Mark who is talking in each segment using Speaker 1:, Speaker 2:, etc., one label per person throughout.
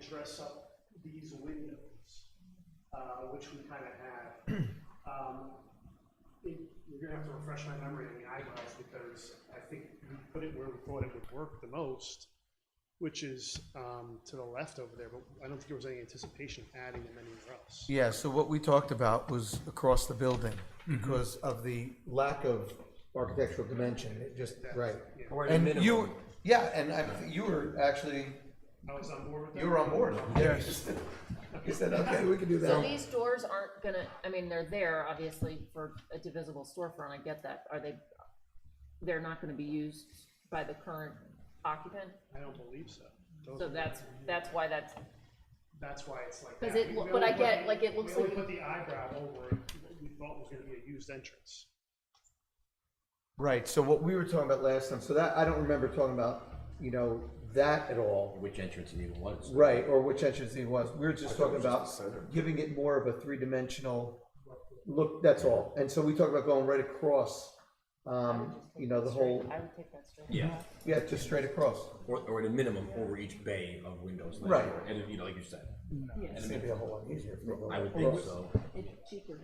Speaker 1: dress up these windows, uh, which we kind of have. Um, it- You're gonna have to refresh my memory on the eyebrows, because I think we put it where we thought it would work the most, which is um, to the left over there, but I don't think there was any anticipation of adding them anywhere else.
Speaker 2: Yeah, so what we talked about was across the building because of the lack of architectural dimension, it just, right.
Speaker 3: Or at a
Speaker 2: And
Speaker 3: minimum.
Speaker 2: you, yeah, and I, you were actually,
Speaker 1: I was on board with that.
Speaker 2: you were on board. Yes. You said, okay, we can do
Speaker 4: So
Speaker 2: that.
Speaker 4: these doors aren't gonna, I mean, they're there, obviously, for a divisible storefront, I get that, are they, they're not gonna be used by the current occupant?
Speaker 1: I don't believe so. Those
Speaker 4: So
Speaker 1: are-
Speaker 4: that's, that's why that's,
Speaker 1: That's why it's like.
Speaker 4: 'Cause
Speaker 1: that.
Speaker 4: it
Speaker 1: We
Speaker 4: loo-
Speaker 1: only
Speaker 4: but I
Speaker 1: put
Speaker 4: get,
Speaker 1: the-
Speaker 4: like, it looks
Speaker 1: We only
Speaker 4: like-
Speaker 1: put the eyebrow over what we thought was gonna be a used entrance.
Speaker 2: Right, so what we were talking about last time, so that, I don't remember talking about, you know, that at all.
Speaker 3: Which entrance it even was.
Speaker 2: Right, or which entrance it was. We were just talking about giving it more of a three-dimensional look, that's all. And so we talked about going right across, um, you know, the whole,
Speaker 4: I would take that straight.
Speaker 3: Yeah,
Speaker 2: yeah, just straight across.
Speaker 3: or, or at a minimum, over each bay of windows. like-
Speaker 2: Right.
Speaker 3: And, you know, like you said,
Speaker 4: Yes.
Speaker 2: It's gonna be a whole lot easier. for the-
Speaker 3: I would think so.
Speaker 4: It's cheaper.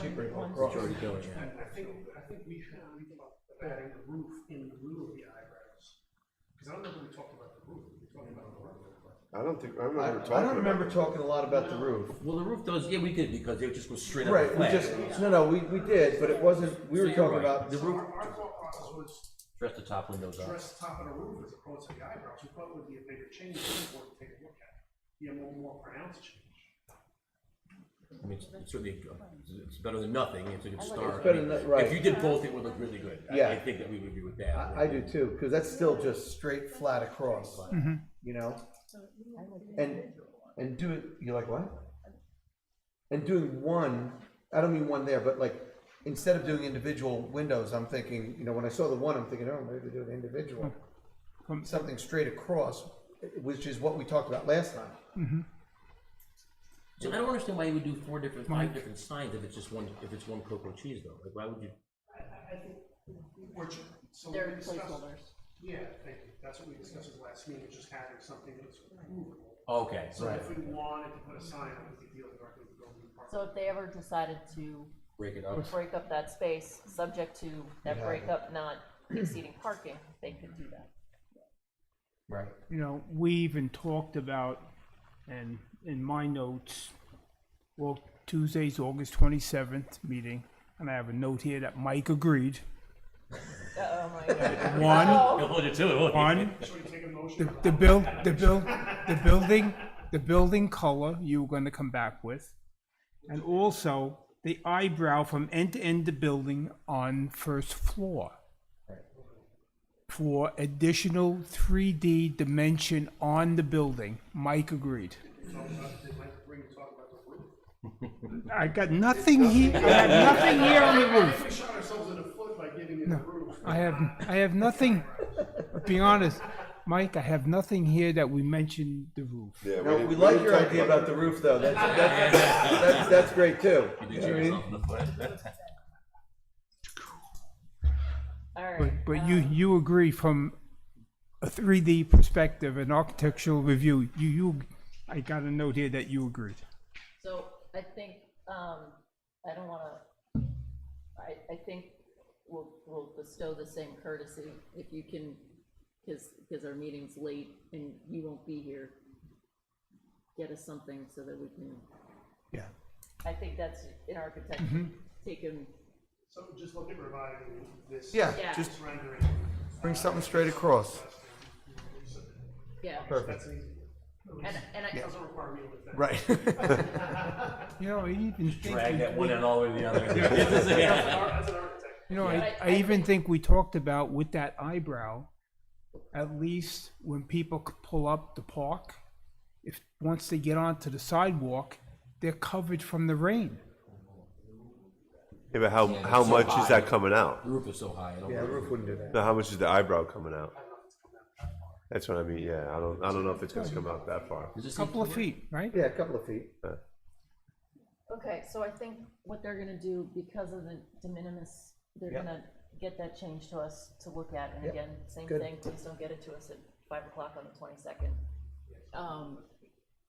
Speaker 2: Cheaper
Speaker 4: One
Speaker 2: across.
Speaker 3: It's already doing it.
Speaker 1: I think, I think we had, we talked about adding the roof in lieu of the eyebrows. Because I don't know if we talked about the roof, we talked about the roof.
Speaker 5: I don't think,
Speaker 2: I,
Speaker 5: I remember talking
Speaker 2: I don't remember
Speaker 5: about
Speaker 2: talking a lot about the roof.
Speaker 3: Well, the roof does, yeah, we did, because it just goes straight up.
Speaker 2: Right, we
Speaker 3: flat.
Speaker 2: just, no, no, we, we did, but it wasn't, we
Speaker 3: So
Speaker 2: were
Speaker 3: you're
Speaker 2: talking
Speaker 3: right.
Speaker 2: about,
Speaker 3: The roof,
Speaker 1: Our, our thought process was
Speaker 3: dress the top windows up.
Speaker 1: dress top of the roof as opposed to the eyebrows, we thought would be a bigger change, we want to take a look at. Be a more, more pronounced change.
Speaker 3: I mean, it's it's certainly, a- it's better than nothing, it's a good start.
Speaker 2: It's better
Speaker 3: I mean,
Speaker 2: than- right.
Speaker 3: If you did both, it would look really good. I-
Speaker 2: Yeah.
Speaker 3: I think that we would agree with that.
Speaker 2: I, I do too, because that's still just straight, flat across, you know? And, and do it, you like what? And doing one, I don't mean one there, but like, instead of doing individual windows, I'm thinking, you know, when I saw the one, I'm thinking, oh, maybe do an individual. Something straight across, which is what we talked about last time.
Speaker 3: So I don't understand why you would do four different, five different signs if it's just one, if it's one cocoa cheese though, like, why would you?
Speaker 1: I, I, I think, we're, ju- so we
Speaker 4: They're
Speaker 1: discussed.
Speaker 4: placeholders.
Speaker 1: Yeah, thank you. That's what we discussed at the last meeting, just having something that's movable.
Speaker 3: Okay,
Speaker 1: So if we wanted to put a sign on it, we could deal directly with the building
Speaker 4: So
Speaker 1: department.
Speaker 4: if they ever decided to
Speaker 3: break it up.
Speaker 4: break up that space, subject to that breakup not exceeding parking, they could do that.
Speaker 2: Right.
Speaker 6: you know, we even talked about, and in my notes, well, Tuesday's August twenty-seventh meeting, and I have a note here that Mike agreed.
Speaker 4: Oh my god. Oh.
Speaker 6: One,
Speaker 3: He'll hold you to it, won't he?
Speaker 6: one,
Speaker 1: So we take a motion.
Speaker 6: the, the bill, the bill, the building, the building color you were gonna come back with. And also the eyebrow from end to end the building on first floor. For additional three D dimension on the building, Mike agreed.
Speaker 1: Talk about- They might bring, talk about the roof.
Speaker 6: I got nothing here, I have nothing here on the
Speaker 1: I
Speaker 6: roof.
Speaker 1: think we shot ourselves in the foot by giving it the roof.
Speaker 6: I have, I have nothing, be honest, Mike, I have nothing here that we mentioned the roof.
Speaker 5: that. Yeah,
Speaker 2: No,
Speaker 5: didn't-
Speaker 2: we like
Speaker 5: didn't
Speaker 2: your
Speaker 5: talk
Speaker 2: idea about the roof, though. That's, that's, that's, that's great too. You know what I mean?
Speaker 4: All right.
Speaker 6: But, but you, you agree from a three D perspective, an architectural review, you, you, I got a note here that you agreed.
Speaker 4: So I think, um, I don't wanna, I, I think we'll, we'll bestow the same courtesy if you can, cause, cause our meeting's late and you won't be here. Get us something so that we can,
Speaker 2: Yeah.
Speaker 4: I think that's in architecture, taken,
Speaker 1: So just look at reviving this.
Speaker 2: Yeah,
Speaker 4: Yeah.
Speaker 2: just
Speaker 1: This rendering.
Speaker 2: bring something straight across.
Speaker 4: yeah,
Speaker 2: Perfect.
Speaker 1: That's an easy one. At
Speaker 4: and,
Speaker 1: least
Speaker 4: and
Speaker 1: It
Speaker 4: I,
Speaker 1: doesn't require me to look that.
Speaker 2: Right.
Speaker 6: You know, I even
Speaker 3: Drag
Speaker 6: think,
Speaker 3: that one end all the way to the other.
Speaker 1: As an ar- as an architect.
Speaker 6: you know,
Speaker 4: Yeah.
Speaker 6: I, I even think we talked about with that eyebrow, at least when people c- pull up the park, if, once they get onto the sidewalk, they're covered from the rain.
Speaker 5: Yeah, but how, how
Speaker 3: so
Speaker 5: much is
Speaker 3: high.
Speaker 5: that coming out?
Speaker 3: The roof is so high, I don't
Speaker 2: Yeah, the
Speaker 3: know.
Speaker 2: roof wouldn't do that.
Speaker 5: Now, how much is the eyebrow coming out? That's what I mean, yeah, I don't, I don't know if it's gonna come out that far.
Speaker 3: Does this
Speaker 6: Couple
Speaker 3: need-
Speaker 6: of feet, right?
Speaker 2: Yeah, a couple of feet.
Speaker 4: okay, so I think what they're gonna do because of the de minimis, they're
Speaker 2: Yep.
Speaker 4: gonna get that change to us to look at, and
Speaker 2: Yep.
Speaker 4: again, same
Speaker 2: Good.
Speaker 4: thing, please don't get it to us at five o'clock on the twenty-second. Um,